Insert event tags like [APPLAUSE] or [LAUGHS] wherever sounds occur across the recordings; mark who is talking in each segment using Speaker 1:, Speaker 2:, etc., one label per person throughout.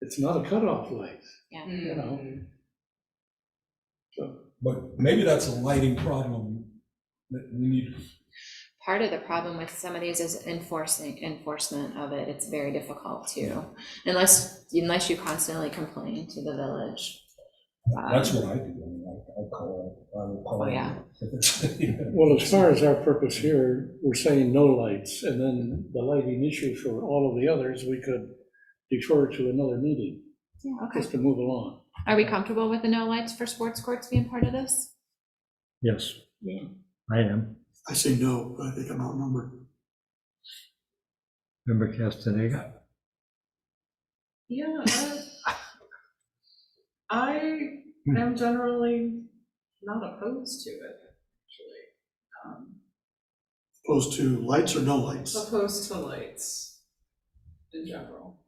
Speaker 1: it's not a cutoff light, you
Speaker 2: yeah.
Speaker 1: know?
Speaker 3: But maybe that's a lighting problem that we need,
Speaker 2: Part of the problem with some of these is enforcing, enforcement of it, it's very difficult to, unless, unless you constantly complain to the village. Um,
Speaker 3: that's what I do, I mean, I, I call, I will call.
Speaker 2: Oh, yeah.
Speaker 3: [LAUGHS]
Speaker 1: Well, as far as our purpose here, we're saying no lights, and then the lighting issue for all of the others, we could defer to another meeting,
Speaker 2: Yeah, okay.
Speaker 1: just to move along.
Speaker 2: Are we comfortable with the no lights for sports courts being part of this?
Speaker 4: Yes.
Speaker 2: Yeah.
Speaker 4: I am.
Speaker 5: I say no, but I think I'm outnumbered.
Speaker 4: Member Castaneda?
Speaker 6: Yeah, I- I am generally not opposed to it, actually. Um,
Speaker 5: Opposed to lights or no lights?
Speaker 6: Opposed to lights in general,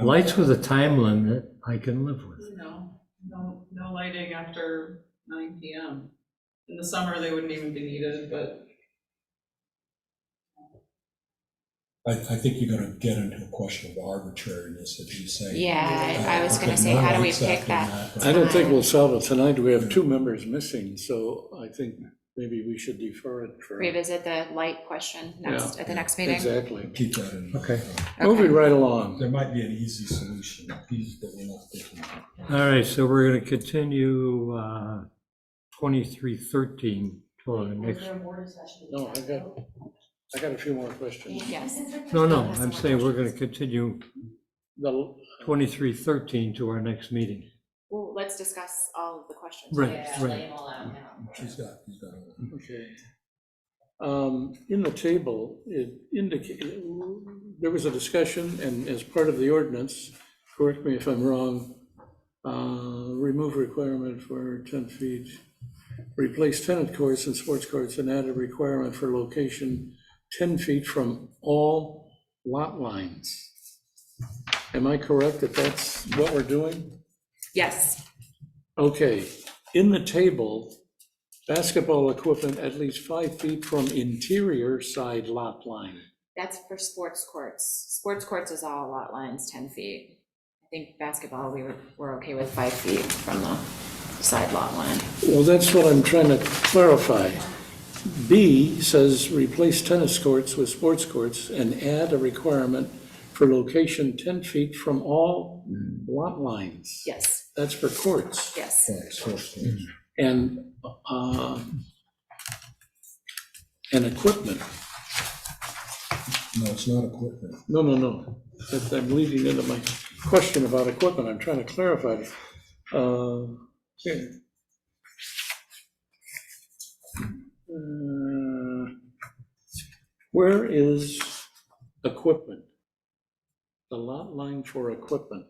Speaker 4: Lights with a time limit, I can live with.
Speaker 6: you know, no, no lighting after nine PM. In the summer, they wouldn't even be needed, but
Speaker 3: I, I think you're gonna get into a question of arbitrariness if you say.
Speaker 2: Yeah, I I was
Speaker 3: uh,
Speaker 2: gonna
Speaker 3: okay,
Speaker 2: say,
Speaker 3: no
Speaker 2: how do we
Speaker 3: lights
Speaker 2: pick
Speaker 3: after
Speaker 2: that?
Speaker 3: but-
Speaker 1: I don't think we'll solve it tonight, we have two members missing, so I think maybe we should defer it for.
Speaker 2: Revisit the light question next, at the next meeting?
Speaker 1: Exactly.
Speaker 3: Keep that in. mind.
Speaker 4: Okay.
Speaker 1: Moving right along.
Speaker 3: There might be an easy solution, easy that we're not thinking of.
Speaker 1: Uh,
Speaker 4: All right, so we're going to continue uh, 2313 till the next.
Speaker 1: No, I got, I got a few more questions.
Speaker 2: Yes.
Speaker 4: No, no, I'm saying we're going to continue
Speaker 1: The
Speaker 4: 2313 to our next meeting.
Speaker 2: Well, let's discuss all of the questions.
Speaker 4: Right, right.
Speaker 3: She's got, she's got. it.
Speaker 1: Okay. Um, In the table, it indicate, there was a discussion, and as part of the ordinance, correct me if I'm wrong, uh, remove requirement for 10 feet, replace tenant courts and sports courts, and add a requirement for location 10 feet from all lot lines. Am I correct that that's what we're doing?
Speaker 2: Yes,
Speaker 1: Okay, in the table, basketball equipment at least five feet from interior side lot line.
Speaker 2: that's for sports courts. Sports courts is all lot lines, 10 feet. I think basketball, we were, we're okay with five feet from the side lot line.
Speaker 1: Well, that's what I'm trying to clarify. B says replace tennis courts with sports courts and add a requirement for location 10 feet from all lot lines.
Speaker 2: Yes,
Speaker 1: That's for courts.
Speaker 2: yes.
Speaker 3: Right, so it's-
Speaker 1: Mm. And, uh, and equipment.
Speaker 3: No, it's not equipment.
Speaker 1: No, no, no. That- I'm leading into my question about equipment. I'm trying to clarify it. Uh, here. Uh, Where is equipment? The lot line for equipment?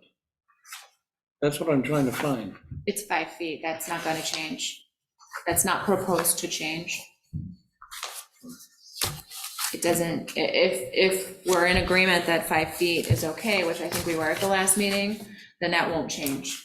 Speaker 1: That's what I'm trying to find.
Speaker 2: It's five feet, that's not gonna change. That's not proposed to change. It doesn't, i- if, if we're in agreement that five feet is okay, which I think we were at the last meeting, then that won't change.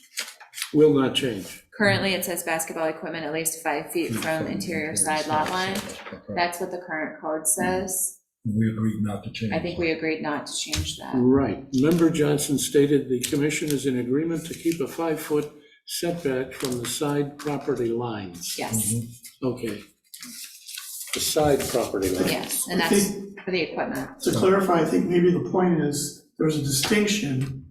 Speaker 1: Will not change.
Speaker 2: Currently, it says basketball equipment at least five feet from interior side lot line.
Speaker 3: Okay.
Speaker 2: That's what the current code says.
Speaker 3: We agreed not to change.
Speaker 2: I think we agreed not to change that.
Speaker 1: Right. Member Johnson stated the commission is in agreement to keep a five-foot setback from the side property lines.
Speaker 3: Mm-hmm.
Speaker 2: Yes,
Speaker 1: Okay. The side property line.
Speaker 2: yes, and
Speaker 5: I
Speaker 2: that's for the equipment.
Speaker 5: To clarify, I think maybe the point is, there's a distinction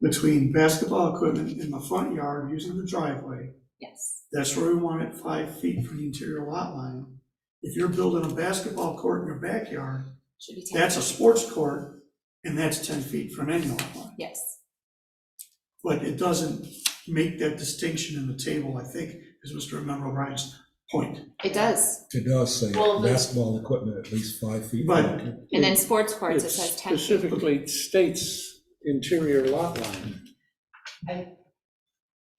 Speaker 5: between basketball equipment in the front yard using the driveway.
Speaker 2: Yes,
Speaker 5: That's where we want it five feet from the interior lot line. If you're building a basketball court in your backyard,
Speaker 2: should be ten.
Speaker 5: that's a sports court, and that's ten feet from any lot line.
Speaker 2: Yes,
Speaker 5: But it doesn't make that distinction in the table, I think, is Mr. Member O'Brien's point.
Speaker 2: it does.
Speaker 3: It does say
Speaker 6: Well, the-
Speaker 3: basketball equipment at least five feet.
Speaker 5: But-
Speaker 3: from-
Speaker 2: And then sports courts,
Speaker 1: It
Speaker 2: it says ten feet.
Speaker 1: specifically states interior lot line.
Speaker 5: They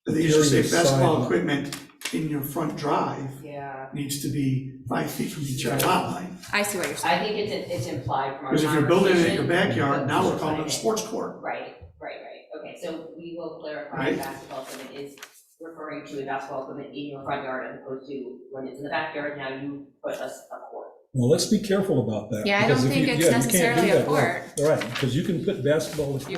Speaker 5: usually
Speaker 3: Interior
Speaker 5: say basketball
Speaker 3: sideline.
Speaker 5: equipment in your front drive
Speaker 7: Yeah,
Speaker 5: needs to be five feet from the interior lot line.
Speaker 2: I see what you're saying.
Speaker 7: I think it's, it's implied from our
Speaker 5: Because if you're building it in your
Speaker 7: conversation,
Speaker 5: backyard,
Speaker 7: but
Speaker 5: now we're
Speaker 7: just
Speaker 5: calling it a
Speaker 7: like-
Speaker 5: sports court.
Speaker 7: Right, right, right, okay, so we will clarify
Speaker 5: Right.
Speaker 7: basketball equipment is referring to a basketball equipment in your front yard as opposed to when it's in the backyard, now you put us a court.
Speaker 3: Well, let's be careful about that.
Speaker 2: Yeah, I
Speaker 3: because
Speaker 2: don't
Speaker 3: if you-
Speaker 2: think it's
Speaker 3: yeah, you can't do
Speaker 2: necessarily a
Speaker 3: that, right. Right, because you can put basketball equipment